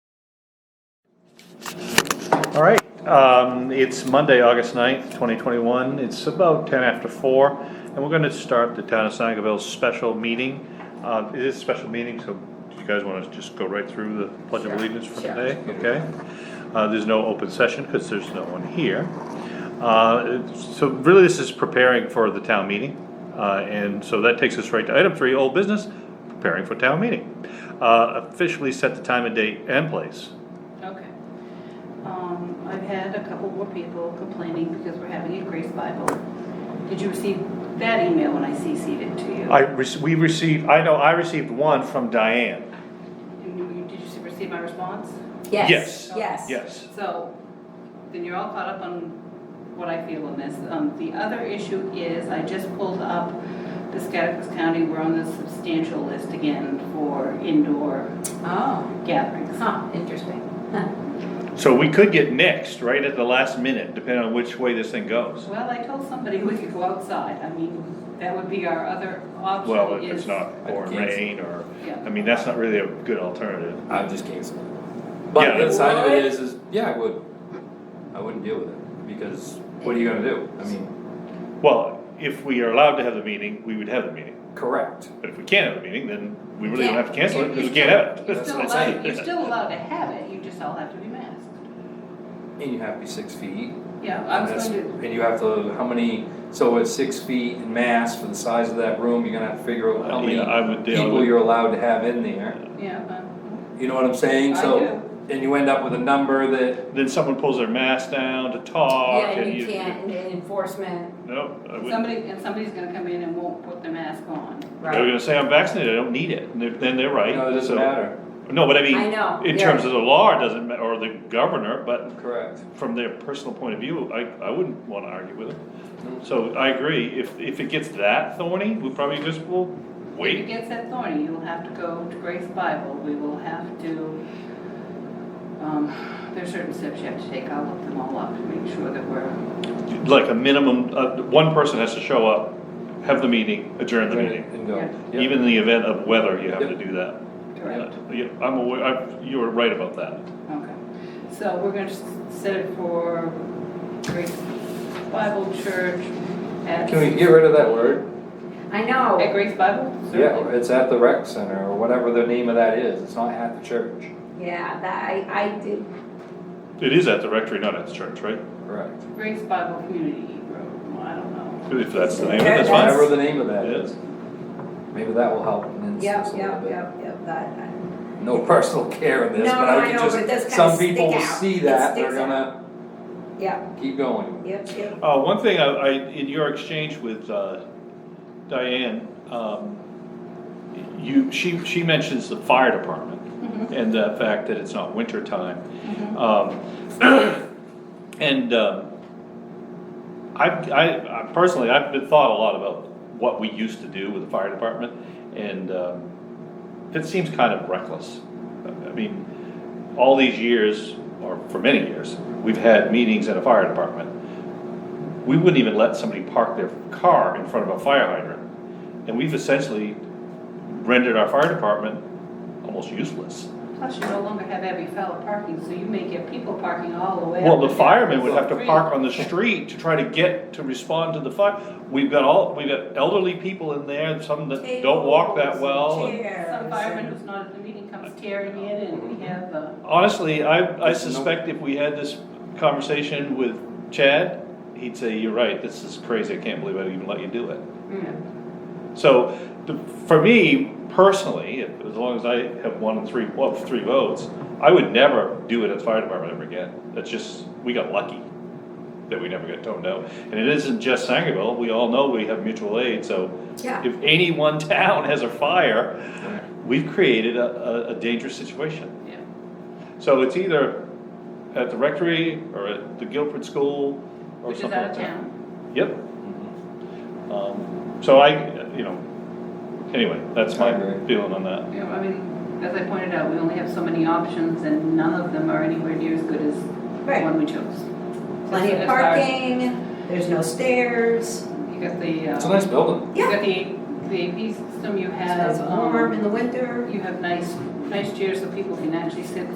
All right, um, it's Monday, August 9th, twenty twenty-one, it's about ten after four, and we're gonna start the town of Sangerville's special meeting. Uh, it is a special meeting, so do you guys wanna just go right through the pledge of Sure, allegiance for sure. today, okay? Uh, there's no open session, cause there's no one here. Uh, it's- so really this is preparing for the town meeting, uh, and so that takes us right to item three, old business, preparing for town meeting. Uh, officially set the time and date and place, Okay. Um, I've had a couple more people complaining because we're having a Grace Bible. Did you receive that email when I CC'd it to you? I, rec- we received, I know, I received one from Diane. And you- Did you receive my response? Yes. Yes, yes. Yes. So, then you're all caught up on what I feel on this. Um, the other issue is, I just pulled up the Scottsburg County, we're on the substantial list again for indoor Oh, gatherings. huh, interesting. So we could get next, right at the last minute, depending on which way this thing goes. Well, I told somebody we could go outside, I mean, that would be our other option Well, if it's is- not pouring Yes. rain or, Yeah. I mean, that's not really a good alternative. I would just cancel it. But Yeah. the other side of it Would? is, is yeah, I would. I wouldn't deal with it because what are you gonna do? I mean, Well, if we are allowed to have the meeting, we would have the meeting. correct. But if we can't have the meeting, then we really don't have to cancel it because we can't have it. You're still That's allowed, you're it. still allowed to have it, you just all have to be masked. And you have to be six feet. Yeah, I And, was that's, going to, and you have to how many? So it's six feet in mass for the size of that room. You're gonna have to figure out how Uh, many yeah, I would deal people with- you're allowed to have in there. yeah, um, You know what I'm saying? I so do. and you end up with a number that Then someone pulls their mask down to talk Yeah, and and you you. can't, and enforcement, No, I wouldn't. somebody, and somebody's gonna come in and won't put their mask on. They're right? gonna say, I'm vaccinated, I don't need it. And they're- then they're right. you know it doesn't so- matter. No, but I mean, I know, in yeah. terms of the law, it doesn't, ma- or the governor, but Correct. from their personal point of view, I, I wouldn't wanna argue with them. So I agree, if, if it gets that thorny, we probably just will If it wait. gets that thorny, you'll have to go to Grace Bible, we will have to, um, there's certain steps you have to take, I'll look them all up to make sure that we're, Like a minimum, uh, one person has to show up, have the meeting, adjourn the meeting. And go. Yeah. Yep. Even in the event of weather, you have to Yep. do that. correct, Uh, yeah, I'm aware, I, you were right about that. okay. So we're gonna s- set it for Grace Bible Church at. Can we get rid of that word? I At know, Grace Bible? Yeah, it's at the rec center or whatever the name of that is. It's not at the church. yeah, that, I, I did, It is at the rectory, not at the church, right? Correct. Grace Bible Community Road, well, I don't know. If that's the name, Yeah, that's fine. Whatever the name of that It is. is. Maybe that will help in yep, instance a little yep, yep, bit. yep, that, I- No personal care in this, No, but no, I I can know, but it does just, kinda some stick people will out. see It that, they're sticks out. gonna yep, keep going. yep, yep. Uh, one thing I, I, in your exchange with, uh, Diane, um, you, she, she mentions the fire department and the fact that it's not winter time. Um, and, um, I, I, I personally, I've been thought a lot about what we used to do with the fire department and, um, it seems kind of reckless. I mean, all these years, or for many years, we've had meetings at a fire department we wouldn't even let somebody park their car in front of a fire hydrant. And we've essentially rendered our fire department almost useless. Plus, you no longer have Abbey Fowler parking, so you may get people parking all the way. Well, up the and down. firemen would have to park on the street to try to get, to respond to the fire. We've got all, we've got elderly people in there, some that don't walk that well. and- Some fireman who's not at the meeting comes tearing in and we have, uh, Honestly, I, I There's no- suspect if we had this conversation with Chad, he'd say, you're right, this is crazy, I can't believe I'd even let you do it. So, the- for me personally, if- as long as I have one and three, well, three votes, I would never do it at the fire department ever again. That's just, we got lucky that we never got toned down. And it isn't just Sangerville, we all know we have mutual aid, so Yeah. if any one town has a fire, we've created a, a, a dangerous situation. yeah. So it's either at the rectory or at the Guilford School or Which is something. out of like that. town. Yep. Um, So I, you know, anyway, that's my I agree. feeling on that. You know, I mean, as I pointed out, we only have so many options and none of them are anywhere near as good as the Right. one we chose. Plenty of As far as- parking, there's no stairs, You got the, It's a uh, nice building. you yeah, got the, the AP system, you it's have, warm um, in the winter, you have nice, nice chairs so people can actually sit